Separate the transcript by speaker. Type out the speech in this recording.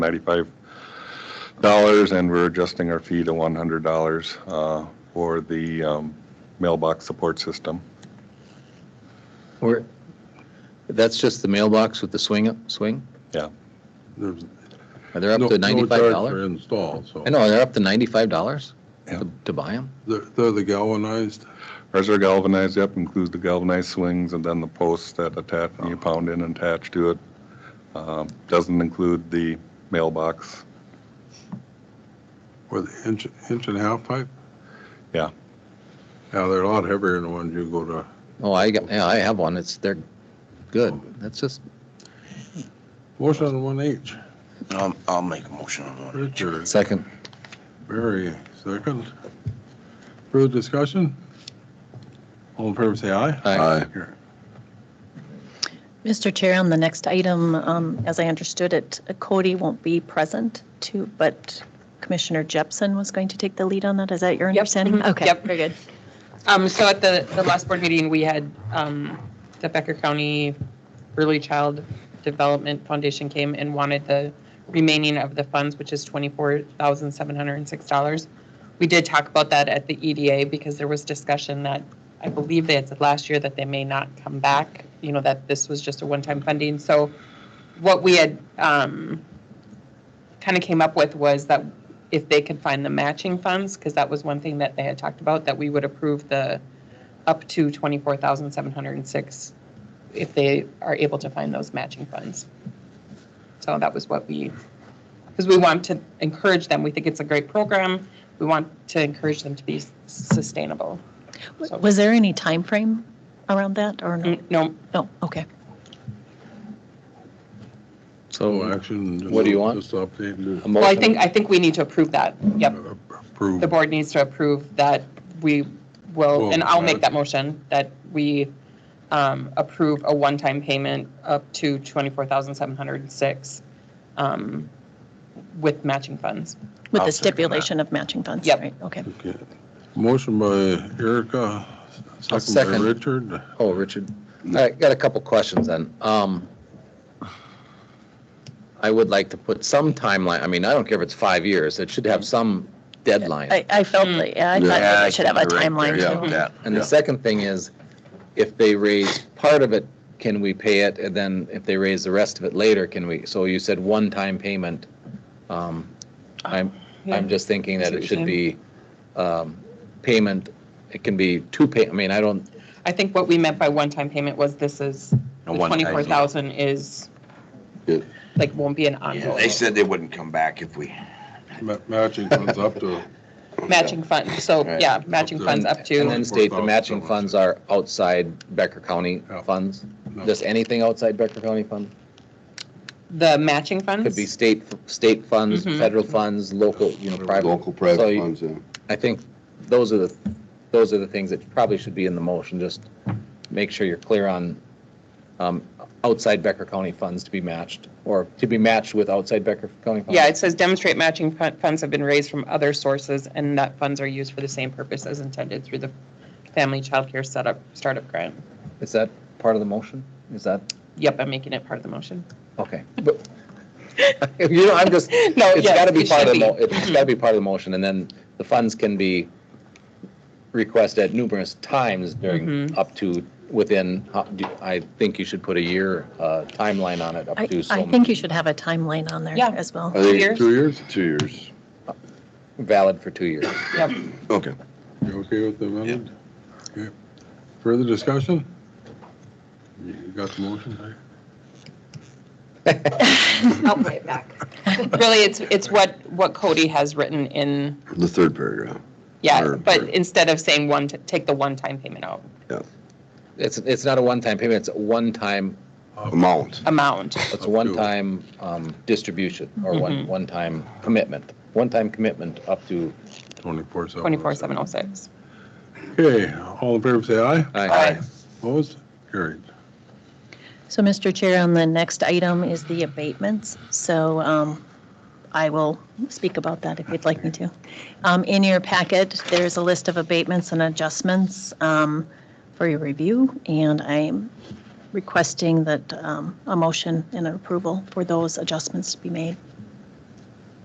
Speaker 1: ninety-five dollars, and we're adjusting our fee to one hundred dollars uh, for the um, mailbox support system.
Speaker 2: Or, that's just the mailbox with the swing, up swing?
Speaker 3: There's
Speaker 2: Are they up
Speaker 3: no-
Speaker 2: to
Speaker 3: no
Speaker 2: ninety-five
Speaker 3: charge for
Speaker 2: dollars?
Speaker 3: install, so.
Speaker 2: I know, they're up to ninety-five dollars
Speaker 1: Yeah.
Speaker 2: to buy them?
Speaker 3: They're, they're the galvanized,
Speaker 1: Ours are galvanized, yep, includes the galvanized swings and then the posts that attach, you pound in and attach to it. Um, Doesn't include the mailbox.
Speaker 3: or the inch, inch and a half pipe?
Speaker 1: Yeah.
Speaker 3: Yeah, they're a lot heavier than the ones you go to,
Speaker 2: Oh, I got, yeah, I have one, it's, they're good, that's just,
Speaker 3: motion on one H,
Speaker 4: I'll, I'll make a motion on one.
Speaker 3: Richard,
Speaker 2: second,
Speaker 3: Barry, second. Further discussion? All in favor, say aye.
Speaker 2: Aye.
Speaker 5: Mr. Chair, on the next item, um, as I understood it, Cody won't be present too, but Commissioner Jepson was going to take the lead on that. Is that your
Speaker 6: Yep.
Speaker 5: understanding?
Speaker 6: Mhm.
Speaker 5: Okay.
Speaker 6: Yep.
Speaker 5: Very good.
Speaker 6: Um, so at the, the last board meeting, we had, um, the Becker County Early Child Development Foundation came and wanted the remaining of the funds, which is twenty-four thousand seven hundred and six dollars. We did talk about that at the EDA because there was discussion that, I believe they had said last year that they may not come back, you know, that this was just a one-time funding. So what we had, um, kind of came up with was that if they could find the matching funds, because that was one thing that they had talked about, that we would approve the up to 24,706 if they are able to find those matching funds. So that was what we, because we want to encourage them, we think it's a great program, we want to encourage them to be sustainable.
Speaker 5: W- Was there any time frame around that or no?
Speaker 6: Mm, No,
Speaker 5: No, okay.
Speaker 3: No
Speaker 2: so,
Speaker 3: action. just-
Speaker 2: What do you want?
Speaker 3: Just update.
Speaker 2: a
Speaker 6: well, I
Speaker 2: motion,
Speaker 6: think, I think we need to approve that, yep.
Speaker 3: Approve.
Speaker 6: the board needs to approve that we will, and I'll
Speaker 4: uh,
Speaker 6: make that motion, that we um, approve a one-time payment up to 24,706 um, with matching funds.
Speaker 5: With
Speaker 4: I'll
Speaker 5: the
Speaker 4: second that.
Speaker 5: stipulation of matching funds.
Speaker 6: Yep.
Speaker 5: right, Okay.
Speaker 3: Okay. Motion by Erica, second by
Speaker 2: second.
Speaker 3: Richard.
Speaker 2: oh, Richard, all right, got a couple questions then. Um, I would like to put some timeline, I mean, I don't care if it's five years, it should have some deadline.
Speaker 5: I, I
Speaker 6: Mm.
Speaker 5: felt, like- yeah, I thought
Speaker 4: Yeah, I
Speaker 5: maybe we should have a
Speaker 4: think you're right
Speaker 5: timeline
Speaker 4: there. Yeah,
Speaker 5: too.
Speaker 4: that-
Speaker 2: And
Speaker 4: yeah.
Speaker 2: the second thing is, if they raise part of it, can we pay it? And then if they raise the rest of it later, can we? So you said one-time payment. Um, I'm, I'm just thinking that it should be um, payment, it can be two pay, I mean, I don't,
Speaker 6: I think what we meant by one-time payment was this is,
Speaker 4: A
Speaker 6: the
Speaker 4: one-time deal.
Speaker 6: 24,000 is,
Speaker 3: Good.
Speaker 6: like, won't be an
Speaker 4: Yeah, They
Speaker 6: ongoing
Speaker 4: said they wouldn't come back if we.
Speaker 3: Ma- Matching funds up to,
Speaker 6: matching fund, so,
Speaker 4: Right.
Speaker 6: yeah, matching funds up
Speaker 2: and
Speaker 6: to,
Speaker 2: then state the matching funds are outside Becker County
Speaker 3: Yeah.
Speaker 2: funds.
Speaker 3: no,
Speaker 2: Just anything outside Becker County fund?
Speaker 6: the matching
Speaker 2: Could be
Speaker 6: funds,
Speaker 2: state, state funds,
Speaker 6: Mhm.
Speaker 2: federal funds, local, you know, private.
Speaker 7: Local
Speaker 2: So
Speaker 7: private
Speaker 2: you-
Speaker 7: funds, yeah.
Speaker 2: I think those are the, those are the things that probably should be in the motion, just make sure you're clear on um, outside Becker County funds to be matched, or to be matched with outside Becker County funds.
Speaker 7: Oh.
Speaker 6: yeah, it says demonstrate matching fun- funds have been raised from other sources and that funds are used for the same purpose as intended through the Family Child Care Setup Startup Grant.
Speaker 2: Is that part of the motion? Is that,
Speaker 6: Yep, I'm making it part of the motion.
Speaker 2: okay. But- You know, I'm just,
Speaker 6: No,
Speaker 2: it's
Speaker 6: yeah,
Speaker 2: got to be
Speaker 6: it
Speaker 2: part of the,
Speaker 6: should
Speaker 2: mo-
Speaker 6: be.
Speaker 2: it's got to be part of the motion, and then the funds can be requested at numerous times during,
Speaker 6: Mhm.
Speaker 2: up to, within, uh, do- I think you should put a year uh, timeline on it, up
Speaker 5: I,
Speaker 2: to so
Speaker 5: I
Speaker 2: many.
Speaker 5: think you should have a timeline on there
Speaker 6: Yeah.
Speaker 5: as well.
Speaker 7: I think
Speaker 6: years?
Speaker 7: it's two years, two years.
Speaker 2: valid for two years.
Speaker 6: Yep.
Speaker 7: Okay.
Speaker 3: You okay with the amendment? Okay. Further discussion? You got the motion? right?
Speaker 8: I'll play it back.
Speaker 6: Really, it's, it's what, what Cody has written in,
Speaker 7: The third paragraph.
Speaker 6: yeah,
Speaker 7: Or-
Speaker 6: but
Speaker 7: or-
Speaker 6: instead of saying one, t- take the one-time payment out,
Speaker 2: It's, it's not a one-time payment, it's a one-time,
Speaker 7: Amount.
Speaker 6: amount.
Speaker 2: it's a one-time um, distribution or one,
Speaker 6: Mhm.
Speaker 2: one-time commitment. One-time commitment up to,
Speaker 3: Twenty-four seven.
Speaker 6: 24,706.
Speaker 3: Okay, all in favor, say aye.
Speaker 2: I,
Speaker 3: Opposed? Carried.
Speaker 5: So, Mr. Chair, on the next item is the abatements. So um, I will speak about that if you'd like me to. Um, In your packet, there's a list of abatements and adjustments um, for your review, and I'm requesting that um, a motion and an approval for those adjustments to be made.